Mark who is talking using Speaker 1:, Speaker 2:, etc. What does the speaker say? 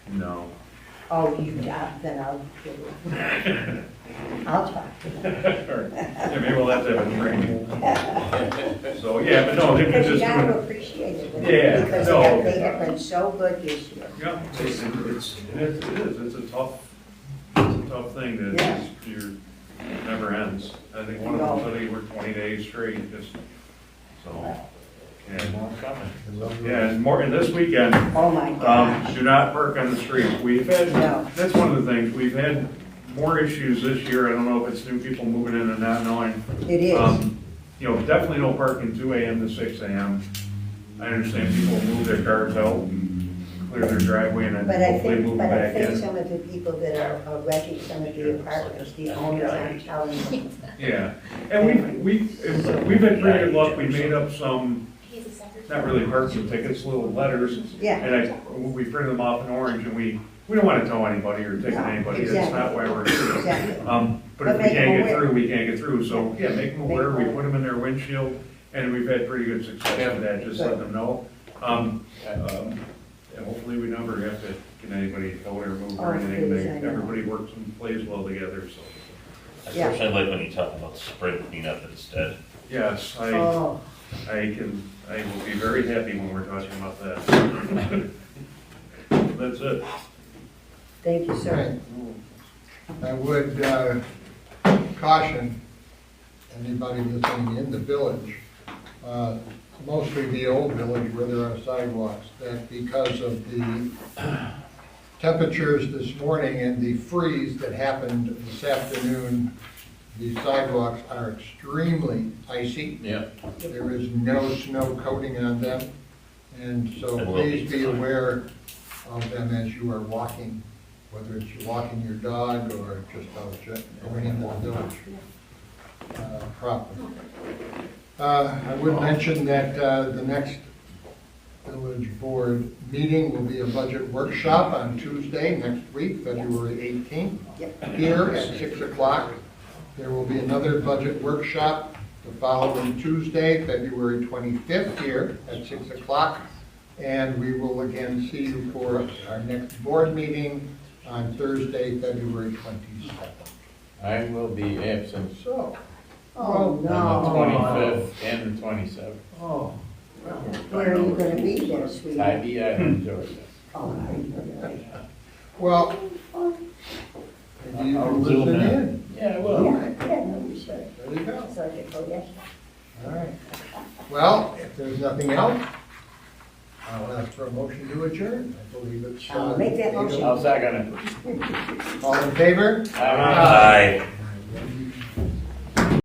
Speaker 1: No.
Speaker 2: Oh, you, uh, then I'll, give it- I'll talk to them.
Speaker 1: Yeah, maybe we'll have to have a training. So, yeah, but no, they've been
Speaker 2: Because you
Speaker 1: just
Speaker 2: got to
Speaker 1: doing,
Speaker 2: appreciate it.
Speaker 1: Yeah,
Speaker 2: Because
Speaker 1: no.
Speaker 2: they have, they have been so good this year.
Speaker 1: yeah, it's, it's, it is, it is, it's a tough, it's a tough thing that is, you're, never ends. I think one of them said he worked twenty days straight, just, so. And, yeah, and more, and this weekend,
Speaker 2: Oh, my
Speaker 1: Um,
Speaker 2: gosh.
Speaker 1: do not park on the street. We've had,
Speaker 2: No.
Speaker 1: that's one of the things, we've had more issues this year. I don't know if it's new people moving in and not knowing.
Speaker 2: It is.
Speaker 1: Um, You know, definitely no parking two AM to six AM. I understand people move their cars out and clear their driveway and
Speaker 2: But
Speaker 1: then
Speaker 2: I
Speaker 1: hopefully
Speaker 2: think,
Speaker 1: move
Speaker 2: but I
Speaker 1: back
Speaker 2: think
Speaker 1: in.
Speaker 2: some of the people that are are renting some of the apartments, the owners aren't telling them.
Speaker 1: Yeah, and we, we, we've been pretty good luck. We made up some,
Speaker 3: He's a secretary.
Speaker 1: not really parking tickets, little letters.
Speaker 2: Yeah,
Speaker 1: And I, we printed them off in orange and we, we don't want to tell anybody or ticket
Speaker 2: No,
Speaker 1: anybody. That's not why we're here.
Speaker 2: exactly.
Speaker 1: Um, but if
Speaker 2: But
Speaker 1: we
Speaker 2: make them
Speaker 1: can't get
Speaker 2: aware.
Speaker 1: through, we can't get through, so, yeah, make them
Speaker 2: Make
Speaker 1: aware, we
Speaker 2: them
Speaker 1: put them in their windshield, and we've had pretty good success with that, just let them know. Um, um, and hopefully we never have to get anybody towed or moved or
Speaker 2: Oh,
Speaker 1: anything,
Speaker 2: please,
Speaker 1: They-
Speaker 2: I know.
Speaker 1: everybody works and plays well together, so.
Speaker 2: Yeah.
Speaker 4: Especially like when you talk about spring cleanup instead.
Speaker 1: Yes, I,
Speaker 2: Oh,
Speaker 1: I can, I will be very happy when we're talking about that. That's it.
Speaker 2: thank you, sir.
Speaker 5: I would uh, caution anybody listening in the village, uh, mostly the old village where there are sidewalks, that because of the temperatures this morning and the freeze that happened this afternoon, the sidewalks are extremely icy.
Speaker 6: Yeah.
Speaker 5: There is no snow coating on them, and so
Speaker 4: It will be
Speaker 5: please be
Speaker 4: tonight.
Speaker 5: aware of them as you are walking, whether it's walking your dog or just out ju- going into the village uh, proper. Uh, I would mention that uh, the next village board meeting will be a budget workshop on Tuesday next week, February 18th, here at 6 o'clock. There will be another budget workshop the following Tuesday, February 25th, here at 6 o'clock. And we will again see you for our next board meeting on Thursday, February 27th.
Speaker 6: I will be absent
Speaker 5: So,
Speaker 2: Oh,
Speaker 6: on the
Speaker 2: no.
Speaker 6: twenty-fifth and the twenty-seventh.
Speaker 2: Oh, where are you going to be there,
Speaker 6: I
Speaker 2: sweetie?
Speaker 6: be out in Georgia.
Speaker 2: Oh, are you really?
Speaker 5: well, maybe you can listen in.
Speaker 6: Yeah, I
Speaker 2: Yeah,
Speaker 6: will.
Speaker 2: yeah, no, you should.
Speaker 5: There you go.
Speaker 2: So I could go, yes.
Speaker 5: All right. Well, if there's nothing else, I'll ask for a motion to adjourn. I believe it's. uh,
Speaker 2: I'll make that motion.
Speaker 6: I'll second it. Uh,
Speaker 5: All in favor?
Speaker 6: Aye.
Speaker 4: Aye.